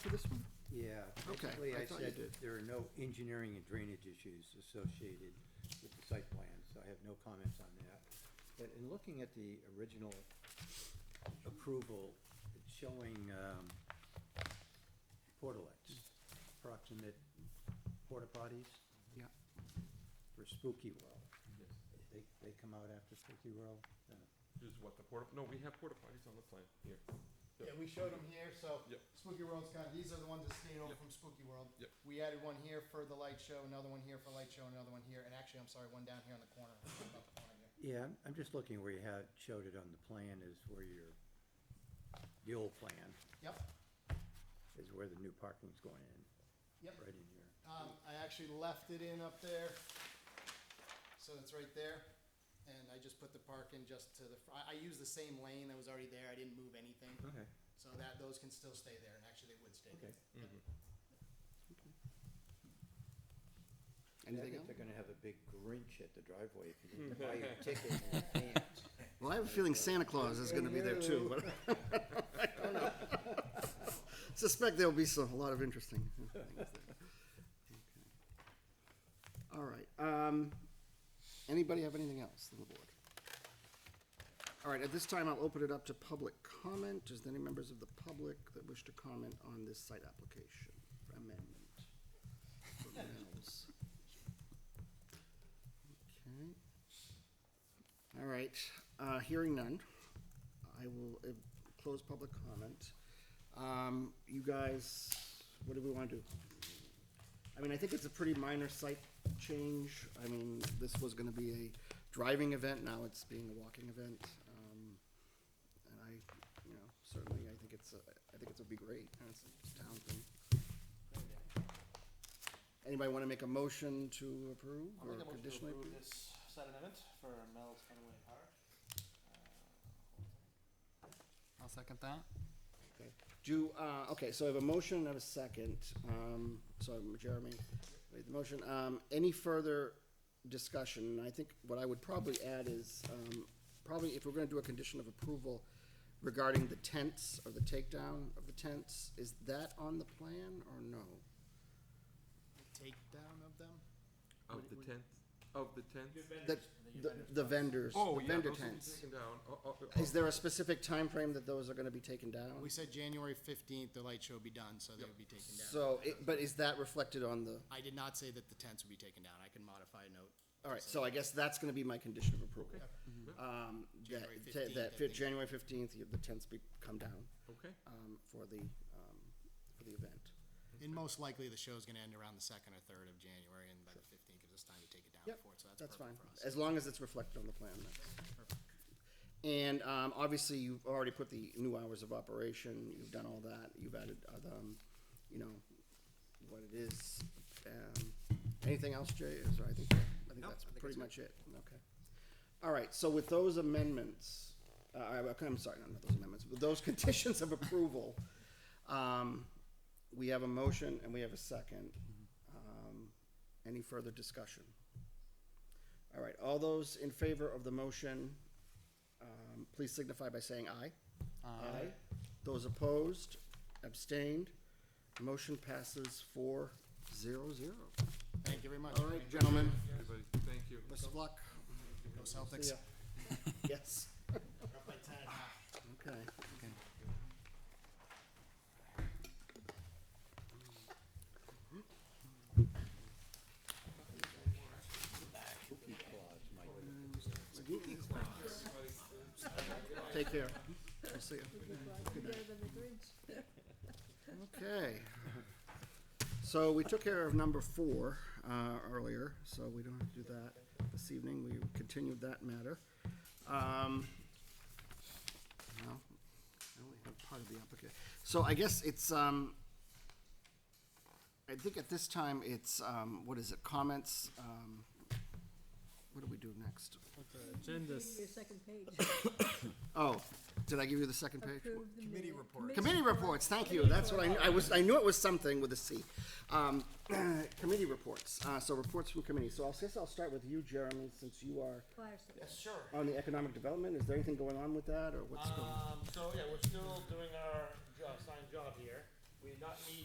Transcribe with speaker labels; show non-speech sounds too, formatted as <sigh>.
Speaker 1: for this one?
Speaker 2: Yeah.
Speaker 1: Okay,
Speaker 2: basically,
Speaker 1: I thought you
Speaker 2: said
Speaker 1: did.
Speaker 2: There are no engineering and drainage issues associated with the site plan, so I have no comments on that. But in looking at the original approval, it's showing um, portalets, approximate porta potties
Speaker 1: Yeah.
Speaker 2: for Spooky World. They, they come out after Spooky World? Uh,
Speaker 3: Is what the porta, no, we have porta potties on the plan here.
Speaker 4: Yeah, we showed them here, so
Speaker 3: Yep.
Speaker 4: Spooky World's kind of, these are the ones that stayed over
Speaker 3: Yep.
Speaker 4: from Spooky World.
Speaker 3: Yep.
Speaker 4: We added one here for the light show, another one here for light show, another one here, and actually, I'm sorry, one down here on the corner. I forgot about the corner here.
Speaker 2: Yeah, I'm- I'm just looking where you had, showed it on the plan is where your, the old plan
Speaker 4: Yep,
Speaker 2: is where the new parking's going in.
Speaker 4: yep.
Speaker 2: right in here.
Speaker 4: Um, I actually left it in up there, so it's right there, and I just put the park in just to the, fr- I, I used the same lane that was already there, I didn't move anything.
Speaker 2: Okay.
Speaker 4: So that, those can still stay there, and actually, they would stay there.
Speaker 2: Okay.
Speaker 5: Anything
Speaker 2: I
Speaker 5: else?
Speaker 2: think they're gonna have a big Grinch at the driveway if you need to <laughs> buy your ticket in advance.
Speaker 5: Well, I have a feeling Santa Claus is going to be there too. but- <laughs> Suspect there'll be some, a lot of interesting things there. Okay. All right, um, anybody have anything else on the board? All right, at this time, I'll open it up to public comment. Is there any members of the public that wish to comment on this site application for amendment? For Mel's? Okay. All right, uh, hearing none, I will uh, close public comment. Um, you guys, what do we want to do? I mean, I think it's a pretty minor site change. I mean, this was gonna be a driving event, now it's being a walking event. Um, and I, you know, certainly, I think it's, a- I think it's would be great, and it's a town thing. Anybody wanna make a motion to approve
Speaker 6: I'll
Speaker 5: or
Speaker 6: make a motion to
Speaker 5: conditionally?
Speaker 6: approve this site amendment for Mel's Funway Park. Uh,
Speaker 4: I'll second that.
Speaker 5: Okay. Do, uh, okay, so I have a motion and a second, um, so Jeremy made the motion, um, any further discussion? I think what I would probably add is, um, probably if we're gonna do a condition of approval regarding the tents or the takedown of the tents, is that on the plan or no?
Speaker 4: Takedown of them?
Speaker 3: Of the tent, of the tent?
Speaker 5: The, the the vendors,
Speaker 3: Oh,
Speaker 5: the
Speaker 3: yeah,
Speaker 5: vendor
Speaker 3: those will be
Speaker 5: tents.
Speaker 3: taken down. Oh, oh, oh,
Speaker 5: Is there a specific time frame that those are gonna be taken down?
Speaker 4: We said January fifteenth, the light show would be done, so they would be taken down.
Speaker 5: So, it, but is that reflected on the?
Speaker 4: I did not say that the tents would be taken down. I can modify a note.
Speaker 5: All right, so I guess that's gonna be my condition of approval. Um, that,
Speaker 4: January
Speaker 5: ta-
Speaker 4: 15th,
Speaker 5: that,
Speaker 4: I
Speaker 5: fi-
Speaker 4: think.
Speaker 5: January fifteenth, the tents be, come down,
Speaker 3: Okay,
Speaker 5: um, for the, um, for the event.
Speaker 4: And most likely, the show's gonna end around the second or third of January, and by the fifteenth gives us time to take it down
Speaker 5: Yep,
Speaker 4: before, it, so that's
Speaker 5: That's fine,
Speaker 4: perfect for us.
Speaker 5: as long as it's reflected on the plan, that's. And, um, obviously, you've already put the new hours of operation, you've done all that, you've added, uh, um, you know, what it is. Um, anything else, Jay, is, I think, I think that's pretty much it, okay. All right, so with those amendments, uh, I- I'm sorry, not those amendments, but those <laughs> conditions of approval, um, we have a motion and we have a second.
Speaker 4: Mm-hmm.
Speaker 5: Um, Any further discussion? All right, all those in favor of the motion, um, please signify by saying aye. Aye. Those opposed, abstained, motion passes four zero zero.
Speaker 4: Thank you very much.
Speaker 5: All right, gentlemen,
Speaker 3: everybody, thank you.
Speaker 5: best of luck.
Speaker 4: Go Celtics.
Speaker 5: Yeah. <laughs> Yes. Okay. Take care. I'll see you.
Speaker 7: Better than the Grinch.
Speaker 5: Okay. So we took care of number four uh, earlier, so we don't have to do that this evening. We continued that matter. Um, No, I only have part of the application. So I guess it's, um, I think at this time, it's, um, what is it, comments? um, What do we do next?
Speaker 7: Your second page.
Speaker 5: Oh, did I give you the second page?
Speaker 7: Approve the minute- reports.
Speaker 5: Committee reports, thank you, that's what I, I was, I knew it was something with a C. Um, <clears throat> committee reports, uh, so reports from committee, so I guess I'll start with you, Jeremy, since you are
Speaker 6: Yes, sure.
Speaker 5: on the economic development, is there anything going on with that, or what's going?
Speaker 6: Um, so yeah, we're still doing our job, signed job here. we not need